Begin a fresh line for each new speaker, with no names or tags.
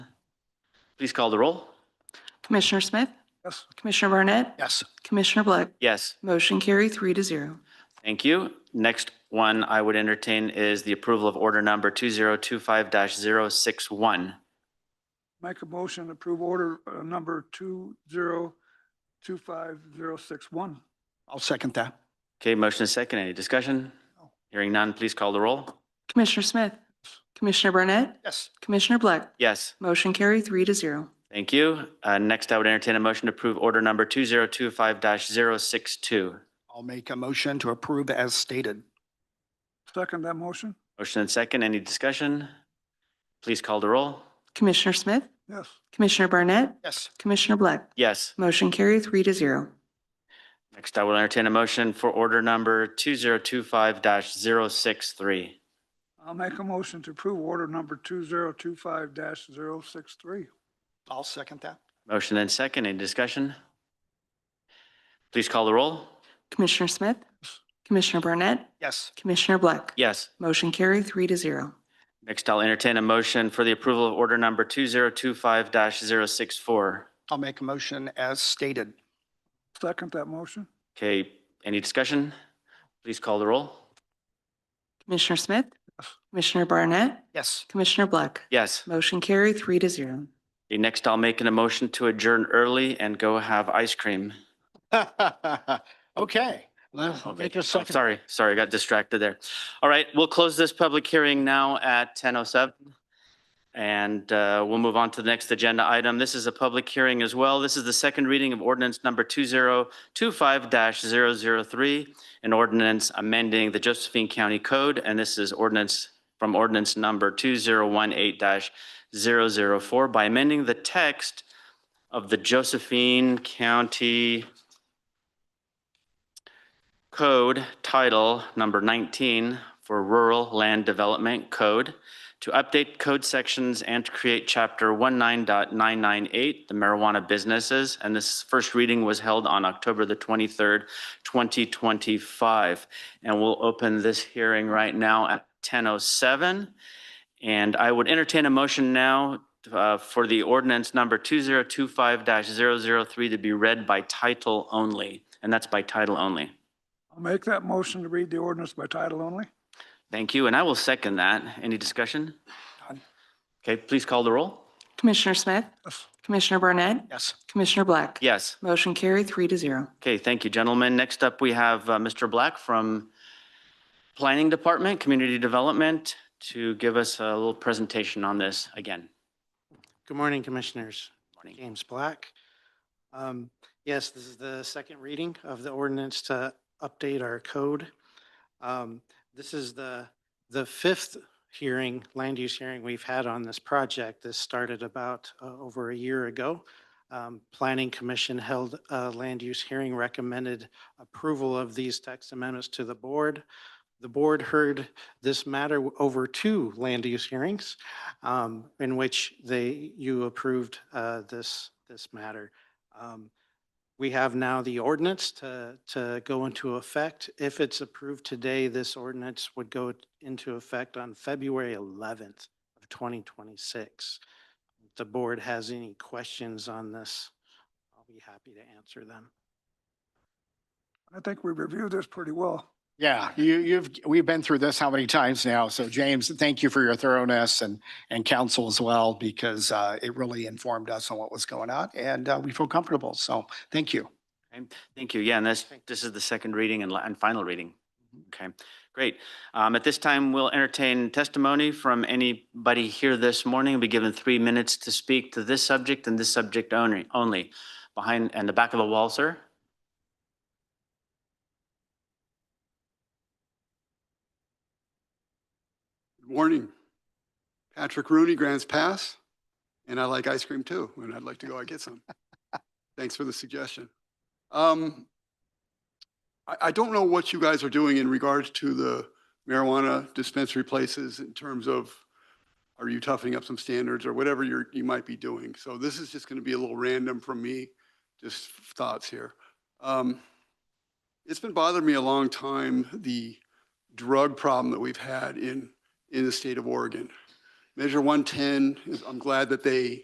Please call the roll.
Commissioner Smith?
Yes.
Commissioner Barnett?
Yes.
Commissioner Black?
Yes,
Motion carry three to zero.
thank you. Next one I would entertain is the approval of order number 2025-061.
Make a motion to approve order uh, number two zero two five zero six one. I'll second that.
Okay, motion is second. Any discussion?
No.
Hearing none, please call the roll.
Commissioner Smith? Commissioner Barnett?
Yes.
Commissioner Black?
Yes,
Motion carry three to zero.
thank you. Uh, Next, I would entertain a motion to approve order number 2025-062.
I'll make a motion to approve as stated.
Second that motion?
Motion and second, any discussion? Please call the roll.
Commissioner Smith?
Yes.
Commissioner Barnett?
Yes.
Commissioner Black?
Yes,
Motion carry three to zero.
next I will entertain a motion for order number 2025-063.
I'll make a motion to approve order number two zero two five dash zero six three.
I'll second that.
Motion and second, any discussion? Please call the roll.
Commissioner Smith? Commissioner Barnett?
Yes.
Commissioner Black?
Yes,
Motion carry three to zero.
next I'll entertain a motion for the approval of order number 2025-064.
I'll make a motion as stated.
Second that motion?
Okay, any discussion? Please call the roll.
Commissioner Smith?
Yes.
Commissioner Barnett?
Yes.
Commissioner Black?
Yes,
Motion carry three to zero.
Okay, next I'll make an emotion to adjourn early and go have ice cream.
Okay, let's
Okay.
make
Oh,
a second.
Sorry, sorry, got distracted there. All right, we'll close this public hearing now at 10:07. And uh, we'll move on to the next agenda item. This is a public hearing as well. This is the second reading of ordinance number 2025-003, an ordinance amending the Josephine County Code, and this is ordinance from ordinance number 2018-004 by amending the text of the Josephine County Code Title Number 19 for Rural Land Development Code to update code sections and to create Chapter 19.998, the marijuana businesses. And this first reading was held on October the 23rd, 2025. And we'll open this hearing right now at 10:07. And I would entertain a motion now uh, for the ordinance number 2025-003 to be read by title only. And that's by title only.
I'll make that motion to read the ordinance by title only.
Thank you, and I will second that. Any discussion?
None.
Okay, please call the roll.
Commissioner Smith?
Yes.
Commissioner Barnett?
Yes.
Commissioner Black?
Yes.
Motion carry three to zero.
Okay, thank you, gentlemen. Next up, we have uh, Mr. Black from Planning Department, Community Development, to give us a little presentation on this again.
Good morning, Commissioners.
Morning.
James Black. Um, Yes, this is the second reading of the ordinance to update our code. Um, This is the, the fifth hearing, land use hearing we've had on this project. This started about uh, over a year ago. Um, Planning Commission held a land use hearing, recommended approval of these text amendments to the board. The board heard this matter over two land use hearings um, in which they, you approved uh, this, this matter. Um, We have now the ordinance to, to go into effect. If it's approved today, this ordinance would go into effect on February 11th of 2026. If the board has any questions on this, I'll be happy to answer them.
I think we reviewed this pretty well.
Yeah, you, you've, we've been through this how many times now? So James, thank you for your thoroughness and, and counsel as well, because uh, it really informed us on what was going on and uh, we feel comfortable. So thank you.
Okay, Thank you. Mm-hmm. Yeah, and this, this is the second reading and, la- and final reading. Okay, great. Um, at this time, we'll entertain testimony from anybody here this morning. Be given three minutes to speak to this subject and this subject only, only. Behind, and the back of the wall, sir.
Good morning. Patrick Rooney, Grants Pass, and I like ice cream too, and I'd like to go out and get some. Thanks for the suggestion. Um, I, I don't know what you guys are doing in regards to the marijuana dispensary places in terms of, are you toughening up some standards or whatever you're, you might be doing? So this is just going to be a little random from me, just thoughts here. Um, It's been bothering me a long time, the drug problem that we've had in in the state of Oregon. Measure 110, is- I'm glad that they